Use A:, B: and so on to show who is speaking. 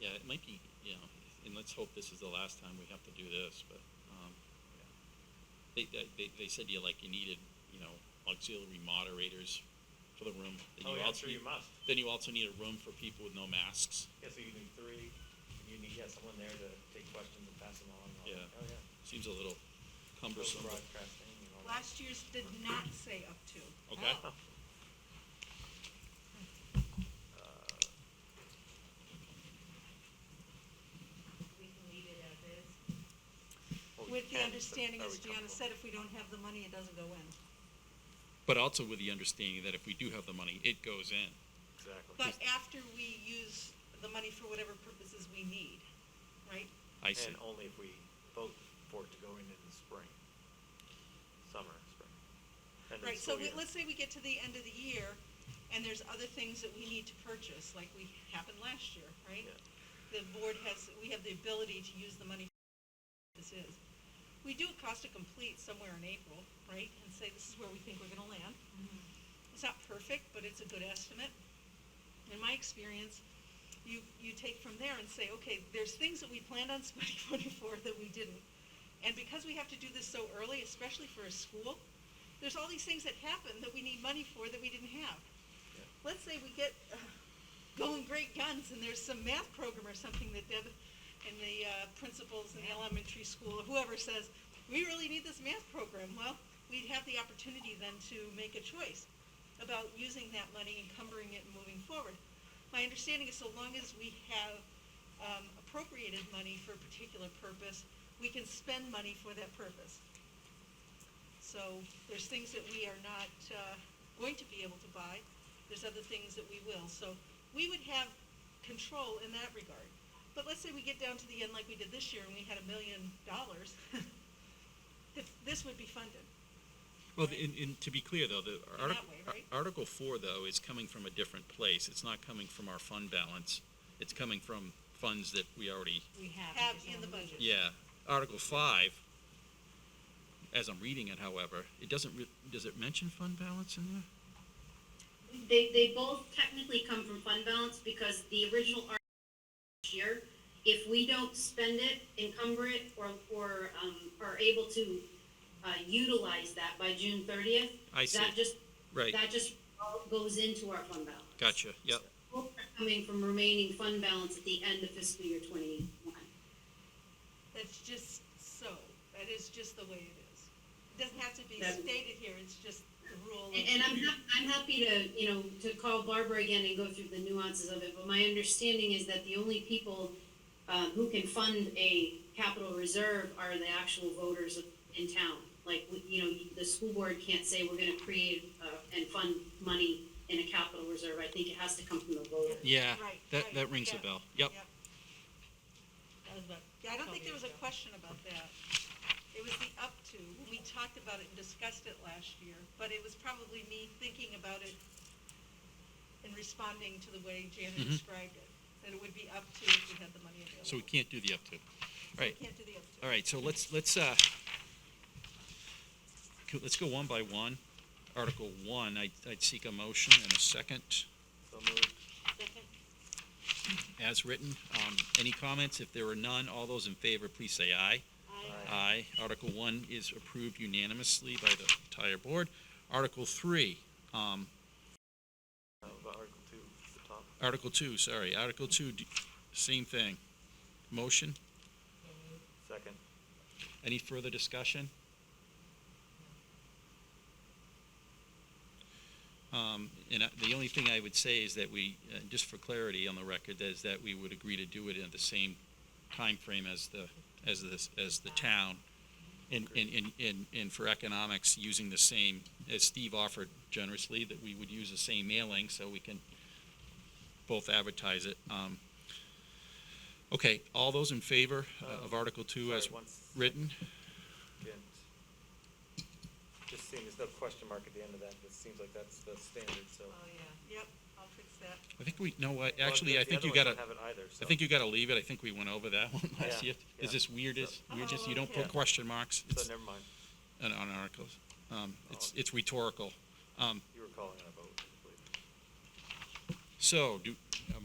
A: yeah, it might be, you know, and let's hope this is the last time we have to do this, but, um, yeah. They, they, they said you like, you needed, you know, auxiliary moderators for the room. Then
B: Oh,
A: you
B: yeah, I'm sure
A: also
B: you
A: need-
B: must.
A: Then you also need a room for people with no masks.
B: Yeah, so you need three, and you need, yeah, someone there to take questions and pass them on and all
A: Yeah.
B: that. Oh, yeah.
A: Seems a little cumbersome. but-
B: Broadcasting and all that.
C: Last year's did not say up to.
A: Okay.
B: Oh. Uh,
C: We can leave it as is.
B: well, we
C: With the
B: can, but
C: understanding,
B: are
C: as
B: we
C: Gianna
B: comfortable?
C: said, if we don't have the money, it doesn't go in.
A: But also with the understanding that if we do have the money, it goes in.
B: Exactly.
C: But after we use the money for whatever purposes we need, right?
A: I see.
B: And only if we vote for it to go in in the spring, summer, spring. end of the
C: Right, so
B: school
C: we,
B: year.
C: let's say we get to the end of the year, and there's other things that we need to purchase, like we happened last year, right?
B: Yeah.
C: The board has, we have the ability to use the money this is. We do a cost to complete somewhere in April, right, and say this is where we think we're gonna land. It's not perfect, but it's a good estimate. In my experience, you, you take from there and say, okay, there's things that we planned on spending money for that we didn't. And because we have to do this so early, especially for a school, there's all these things that happen that we need money for that we didn't have.
B: Yeah.
C: Let's say we get uh, going great guns and there's some math program or something that Deb and the uh, principals in the elementary school or whoever says, we really need this math program. Well, we'd have the opportunity then to make a choice about using that money, encumbering it, and moving forward. My understanding is so long as we have um, appropriated money for a particular purpose, we can spend money for that purpose. So there's things that we are not uh, going to be able to buy, there's other things that we will. So we would have control in that regard. But let's say we get down to the end like we did this year and we had a million dollars, th- this would be funded.
A: Well, and, and to be clear, though, the
C: that
A: artic-
C: way, right?
A: ar- Article Four, though, is coming from a different place. It's not coming from our fund balance. It's coming from funds that we already,
D: We have.
C: Have
D: it,
C: in the
D: so-
C: budget.
A: yeah. Article Five, as I'm reading it, however, it doesn't, re- does it mention fund balance in there?
E: They, they both technically come from fund balance because the original article last year, if we don't spend it, encumber it, or, or, um, are able to, uh, utilize that by June thirtieth.
A: I see.
E: That just,
A: Right,
E: that just all goes into our fund balance.
A: gotcha, yep.
E: Both are Coming from remaining fund balance at the end of fiscal year twenty-one.
C: That's just so, that is just the way it is. It doesn't have to be
E: That-
C: stated here, it's just the rule. of-
E: And, and I'm hap- I'm happy to, you know, to call Barbara again and go through the nuances of it, but my understanding is that the only people uh, who can fund a capital reserve are the actual voters of- in town. Like, we- you know, the school board can't say we're gonna create, uh, and fund money in a capital reserve, I think it has to come from the voter.
A: Yeah,
C: Right,
A: that,
C: right,
A: that rings a
C: yeah,
A: bell. Yep,
D: That was about-
C: Yeah, I don't think there was a
D: Yeah.
C: question about that. It was the up to, we talked about it and discussed it last year, but it was probably me thinking about it and responding to the way Janet
A: Mhm.
C: described it, that it would be up to if we had the money available.
A: so we can't do the up to. Right,
C: Can't do the up to.
A: all right, so let's, let's, uh, co- let's go one by one. Article One, I, I'd seek a motion and a second.
B: So moved.
A: as written. Um, Any comments? If there are none, all those in favor, please say aye. Aye. Article one is approved unanimously by the entire board. Article three, um,
B: Uh, about Article two, at the top.
A: Article two, sorry, Article two, d- same thing. Motion?
B: Second.
A: Any further discussion? Um, And I- the only thing I would say is that we, uh, just for clarity on the record, is that we would agree to do it in the same timeframe as the, as this, as the town. And, and, and- and, and for economics, using the same, as Steve offered generously, that we would use the same mailing so we can both advertise it. Um, Okay, all those in favor uh, of Article Two as
B: Sorry, one second.
A: written?
B: Just seeing, there's no question mark at the end of that, it seems like that's the standard, so.
D: Oh, yeah.
C: Yep, I'll fix that.
A: I think we, no, I-
B: Well,
A: actually,
B: the-
A: I
B: the
A: think
B: other
A: you
B: ones don't
A: gotta,
B: Have it either,
A: I
B: so.
A: think you gotta leave it, I think we went over that one last
B: Yeah,
A: year.
B: yeah.
A: Is this weird, is,
B: So-
A: we're just,
C: Oh,
A: you don't
C: okay.
A: put question marks
B: So
A: it's
B: never mind,
A: on on articles. Um, It's,
B: Oh.
A: it's rhetorical. Um,
B: you were calling on a vote, I believe.
A: So, do, um,